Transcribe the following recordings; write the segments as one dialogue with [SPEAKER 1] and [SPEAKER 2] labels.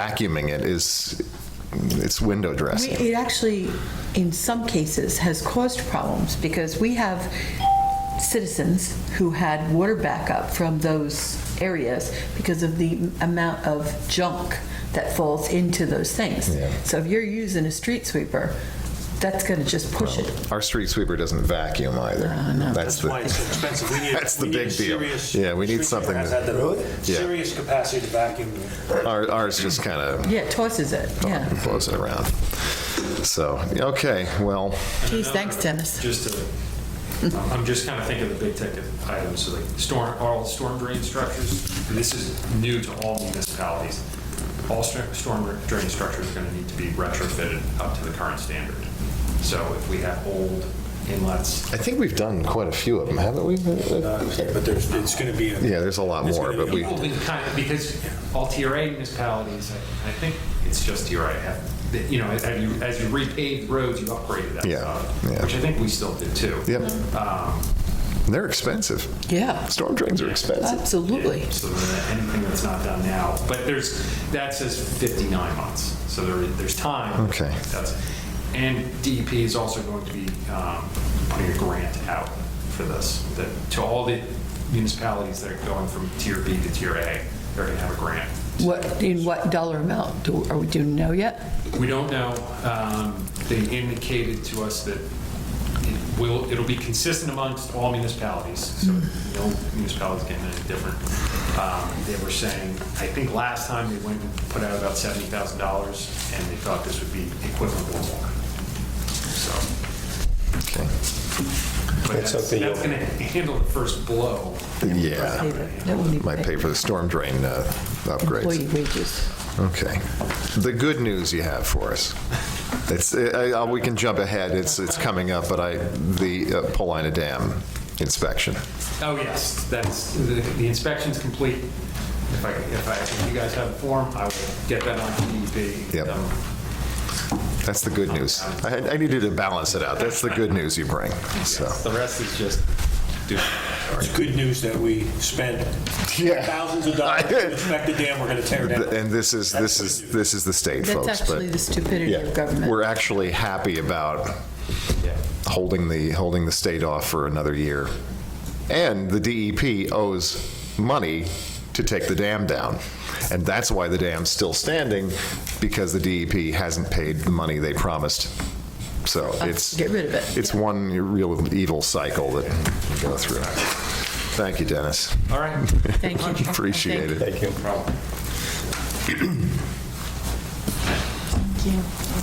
[SPEAKER 1] vacuuming it is, it's window
[SPEAKER 2] We-
[SPEAKER 1] dressing.
[SPEAKER 2] It actually, in some cases, has caused problems because we have citizens who had water backup from those areas because of the amount of junk that falls into those things.
[SPEAKER 1] Yeah.
[SPEAKER 2] So if you're using a street sweeper, that's going to just push it.
[SPEAKER 1] Our street sweeper doesn't vacuum either.
[SPEAKER 2] Uh,
[SPEAKER 1] That's
[SPEAKER 3] That's why
[SPEAKER 1] the,
[SPEAKER 3] it's so expensive. We need,
[SPEAKER 1] That's the
[SPEAKER 3] we need
[SPEAKER 1] big
[SPEAKER 3] a
[SPEAKER 1] deal.
[SPEAKER 3] serious
[SPEAKER 1] Yeah, we need
[SPEAKER 3] street
[SPEAKER 1] something
[SPEAKER 3] that has
[SPEAKER 1] that-
[SPEAKER 3] had the
[SPEAKER 1] Yeah.
[SPEAKER 3] serious capacity to vacuum.
[SPEAKER 1] our- ours just kind of
[SPEAKER 2] Yeah, it tosses it, yeah.
[SPEAKER 1] blows it around. So, okay, well,
[SPEAKER 2] Geez, thanks, Dennis.
[SPEAKER 4] Just to, I'm just kind of thinking of the big ticket items, so like storm, all storm drain structures. This is new to all municipalities. All stor- storm drain structures are going to need to be retrofitted up to the current standard. So if we have old inlets,
[SPEAKER 1] I think we've done quite a few of them, haven't we?
[SPEAKER 3] uh, But there's, it's going to be. a-
[SPEAKER 1] Yeah, there's a lot
[SPEAKER 3] It's
[SPEAKER 1] more,
[SPEAKER 3] gonna
[SPEAKER 1] but
[SPEAKER 3] be-
[SPEAKER 1] we,
[SPEAKER 4] people been kind of, because all TRA municipalities, I I think it's just TRA, have, that, you know, as you, as you repaved roads, you upgraded that
[SPEAKER 1] Yeah, yeah.
[SPEAKER 4] stuff, which I think we still did too.
[SPEAKER 1] yep,
[SPEAKER 4] Um,
[SPEAKER 1] they're expensive.
[SPEAKER 2] Yeah,
[SPEAKER 1] Storm drains are expensive.
[SPEAKER 2] absolutely.
[SPEAKER 4] So that anything that's not done now, but there's, that says 59 months, so there, there's time.
[SPEAKER 1] Okay.
[SPEAKER 4] That's- And DEP is also going to be um, putting a grant out for this, that, to all the municipalities that are going from tier B to tier A, they're going to have a grant.
[SPEAKER 2] What, in what dollar amount? Do Are we, do you know yet?
[SPEAKER 4] We don't know, um, they indicated to us that it will, it'll be consistent amongst all municipalities, so no municipality's getting any different. Um, They were saying, I think last time they went and put out about seventy thousand dollars, and they thought this would be equivalent or more. So,
[SPEAKER 1] Okay.
[SPEAKER 4] but that's,
[SPEAKER 5] Let's hope they-
[SPEAKER 4] that's gonna handle the first blow.
[SPEAKER 1] Yeah,
[SPEAKER 2] That will need
[SPEAKER 1] might pay for the storm drain uh, upgrades.
[SPEAKER 2] Employee wages.
[SPEAKER 1] Okay. The good news you have for us. It's, I- I- we can jump ahead, it's, it's coming up, but I, the uh, Polina Dam inspection.
[SPEAKER 4] Oh, yes, that's, the the inspection's complete. If I, if I, if you guys have a form, I will get that on to DEP.
[SPEAKER 1] Yep.
[SPEAKER 4] Um,
[SPEAKER 1] That's the good news. I, I needed to balance it out. That's the good news you bring, so.
[SPEAKER 4] The rest is just do.
[SPEAKER 3] It's good news that we spent
[SPEAKER 1] Yeah.
[SPEAKER 3] thousands of dollars to inspect the dam we're going to tear down.
[SPEAKER 1] And this is, this is, this is the state, folks.
[SPEAKER 2] That's actually
[SPEAKER 1] but-
[SPEAKER 2] the stupidity
[SPEAKER 1] Yeah.
[SPEAKER 2] of government.
[SPEAKER 1] We're actually happy about holding the, holding the state off for another year. And the DEP owes money to take the dam down. And that's why the dam's still standing, because the DEP hasn't paid the money they promised. So it's.
[SPEAKER 2] get rid of it.
[SPEAKER 1] It's one real evil cycle that we go through. Thank you, Dennis.
[SPEAKER 4] All right.
[SPEAKER 2] Thank you.
[SPEAKER 1] Appreciate it.
[SPEAKER 5] Thank you.
[SPEAKER 6] Yeah,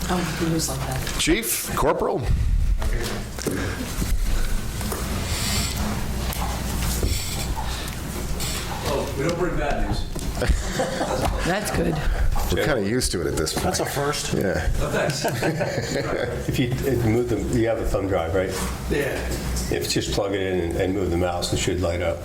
[SPEAKER 6] oh, he was like that.
[SPEAKER 1] Chief, Corporal?
[SPEAKER 7] Oh, we don't bring bad news.
[SPEAKER 2] That's good.
[SPEAKER 1] We're kind of used to it at this point.
[SPEAKER 3] That's a first.
[SPEAKER 1] Yeah.
[SPEAKER 7] Oh, thanks.
[SPEAKER 5] If you if you move them, you have a thumb drive, right?
[SPEAKER 7] Yeah.
[SPEAKER 5] If just plug it in and- and move the mouse, it should light up.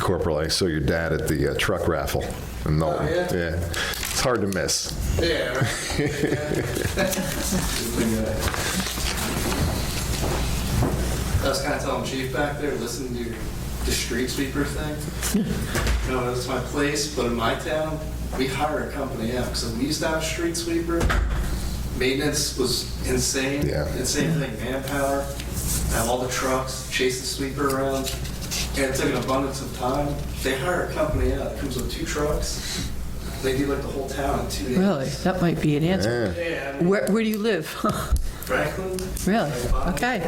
[SPEAKER 1] Corporal, I saw your dad at the uh, truck raffle in Knowlton.
[SPEAKER 7] Oh, yeah?
[SPEAKER 1] It's hard to miss.
[SPEAKER 7] Yeah. right. Yeah. I was kind of telling Chief back there, listen to your, the street sweeper thing. You know, that's my place, but in my town, we hire a company out, so we used to have a street sweeper. Maintenance was insane.
[SPEAKER 1] Yeah.
[SPEAKER 7] Insane thing, manpower, have all the trucks, chase the sweeper around. And it took an abundance of time. They hire a company out, it comes with two trucks. They do like the whole town in two days.
[SPEAKER 2] Really, that might be an answer.
[SPEAKER 1] Yeah.
[SPEAKER 7] Yeah, I mean,
[SPEAKER 2] Where, where do you live?
[SPEAKER 7] Franklin.
[SPEAKER 2] Really?
[SPEAKER 7] like, Bonnie.
[SPEAKER 2] Okay,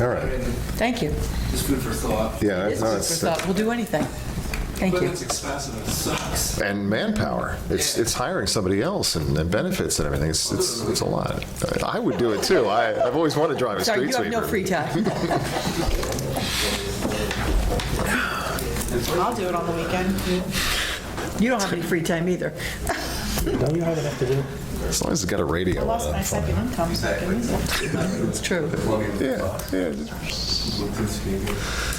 [SPEAKER 1] All
[SPEAKER 7] I
[SPEAKER 1] right.
[SPEAKER 7] mean,
[SPEAKER 2] thank you.
[SPEAKER 7] Just food for thought.
[SPEAKER 1] Yeah.
[SPEAKER 2] This
[SPEAKER 1] no,
[SPEAKER 2] is
[SPEAKER 1] it's-
[SPEAKER 2] for thought, we'll do anything. Thank you.
[SPEAKER 7] Equipment's expensive and it sucks.
[SPEAKER 1] And manpower. It's,
[SPEAKER 7] Yeah.
[SPEAKER 1] it's hiring somebody else and, and benefits and everything. It's, it's, it's a lot. I would do it too. I, I've always wanted to drive a
[SPEAKER 2] Sorry,
[SPEAKER 1] street sweeper.
[SPEAKER 2] you have no free time.
[SPEAKER 6] I'll do it on the weekend.
[SPEAKER 2] You don't have any free time either.
[SPEAKER 5] Don't you have enough to do?
[SPEAKER 1] As long as it's got a radio.
[SPEAKER 6] I lost
[SPEAKER 1] on
[SPEAKER 6] my
[SPEAKER 1] it.
[SPEAKER 6] second income, so I can use it.
[SPEAKER 2] It's true.
[SPEAKER 1] Yeah, yeah.